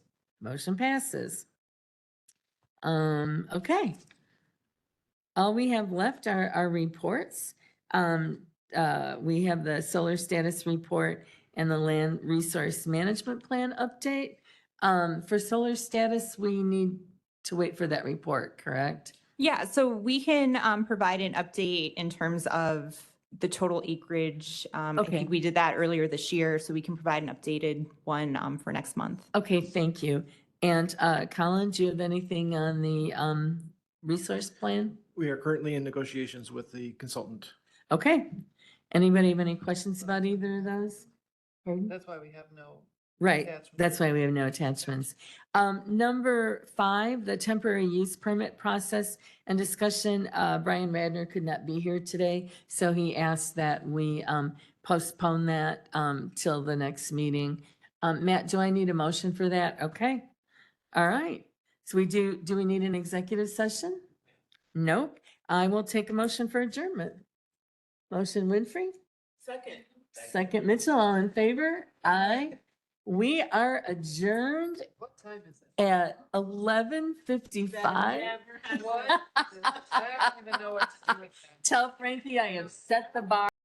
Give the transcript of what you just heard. Motion passes. Um, okay. All we have left are our reports. Um, uh, we have the solar status report and the land resource management plan update. Um, for solar status, we need to wait for that report, correct? Yeah, so we can um, provide an update in terms of the total acreage. Um, I Okay. think we did that earlier this year, so we can provide an updated one um, for next month. Okay, thank you. And, uh, Colin, do you have anything on the, um, resource plan? We are currently in negotiations with the consultant. Okay. Anybody have any questions about either of those? Pardon? That's why we have no Right, attachment. that's why we have no attachments. Um, number five, the temporary use permit process and discussion. Uh, Brian Radner could not be here today, so he asked that we, um, postpone that, um, till the next meeting. Um, Matt, do I need a motion for that? Okay. All right. So we do, do we need an executive session? Nope. I will take a motion for adjournment. Motion Winfrey? Second. Second Mitchell, all in favor? Aye. We are adjourned What time is it? at eleven fifty-five. What? I don't even know what to do with that. Tell Frankie I have set the bar.